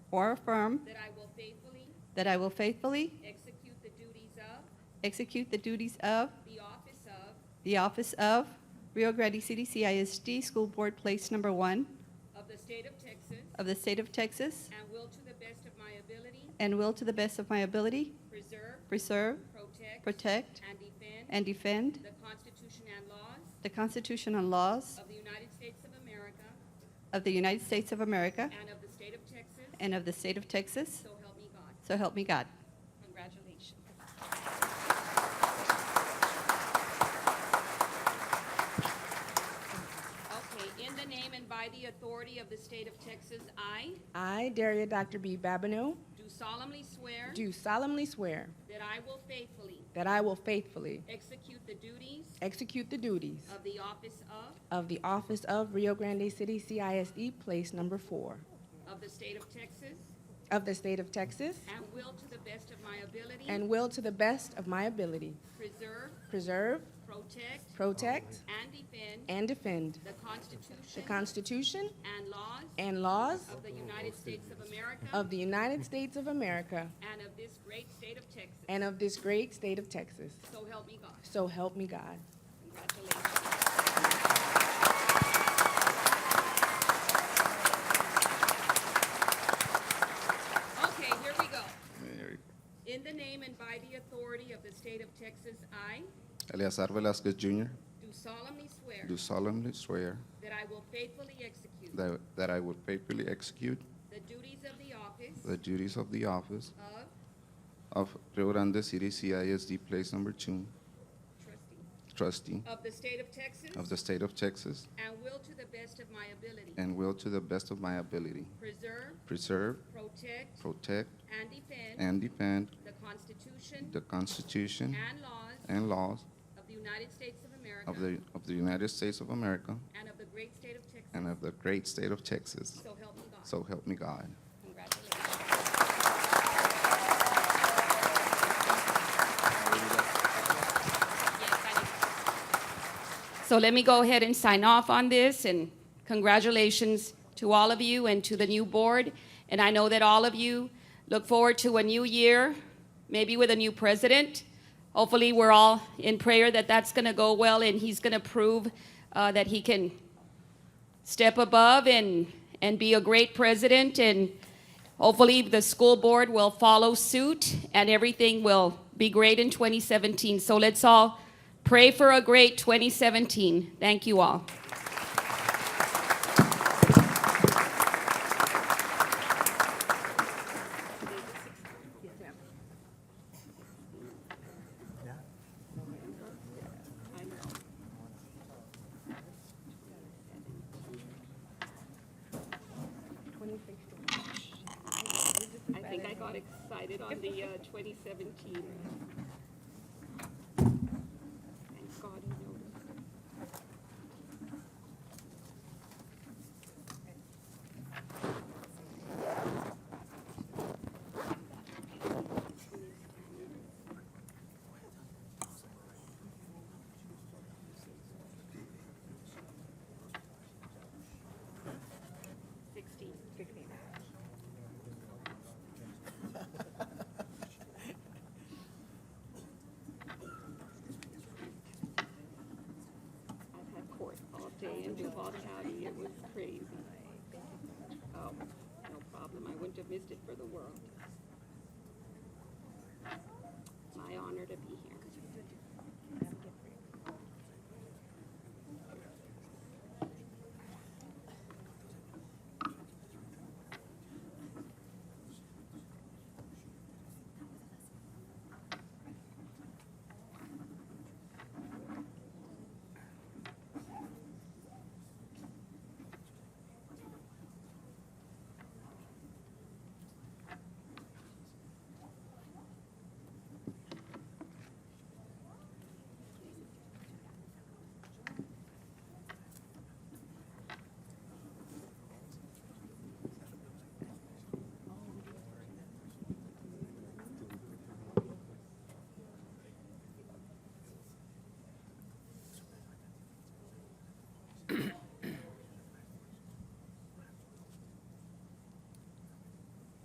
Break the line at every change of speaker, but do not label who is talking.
or affirm
that I will faithfully
that I will faithfully
execute the duties of
execute the duties of
the office of,
the office of Rio Grande City CISD School Board Place Number One
of the state of Texas,
of the state of Texas
and will to the best of my ability
and will to the best of my ability
preserve,
preserve,
protect,
protect,
and defend
and defend
the Constitution and laws
the Constitution and laws
of the United States of America
of the United States of America
and of the state of Texas,
and of the state of Texas,
so help me God.
so help me God.
Congratulations. Okay, in the name and by the authority of the state of Texas, I
I, Daria Dr. B. Babineau,
do solemnly swear
do solemnly swear
that I will faithfully
that I will faithfully
execute the duties
execute the duties
of the office of,
of the office of Rio Grande City CISE E, Place Number Four
of the state of Texas,
of the state of Texas
and will to the best of my ability
and will to the best of my ability
preserve,
preserve,
protect,
protect,
and defend
and defend
the
the
Constitution
Constitution
and laws
and laws
of the United States of America
of the United States of America
and of this great state of Texas.
and of this great state of Texas.
So help me God.
So help me God.
Congratulations. Okay, here we go. In the name and by the authority of the state of Texas, I
Eleazar Velasquez Jr.
do solemnly swear
do solemnly swear
that I will faithfully execute
that that I will faithfully execute
the duties of the office
the duties of the office
of
of Rio Grande City CISD Place Number Two
trustee
trustee
of the state of Texas
of the state of Texas
and will to the best of my ability
and will to the best of my ability
preserve,
preserve,
protect,
protect,
and defend
and defend
the Constitution
the Constitution
and laws
and laws
of the United States of
of
America
the of the United States of America
and of the great state of Texas.
and of the great state of Texas.
So help me God.
So help me God.
Congratulations. Yes, I do. So let me go ahead and sign off on this, and congratulations to all of you and to the new board. And I know that all of you look forward to a new year, maybe with a new president. Hopefully, we're all in prayer that that's going to go well, and he's going to prove uh, that he can step above and, and be a great president. And hopefully, the school board will follow suit and everything will be great in 2017. So let's all pray for a great 2017. Thank you all. I think I got excited on the uh, 2017. Thank God he noticed. Sixteen. I've had court all day in Duval County, it was crazy. Oh, no problem, I wouldn't have missed it for the world. My honor to be here.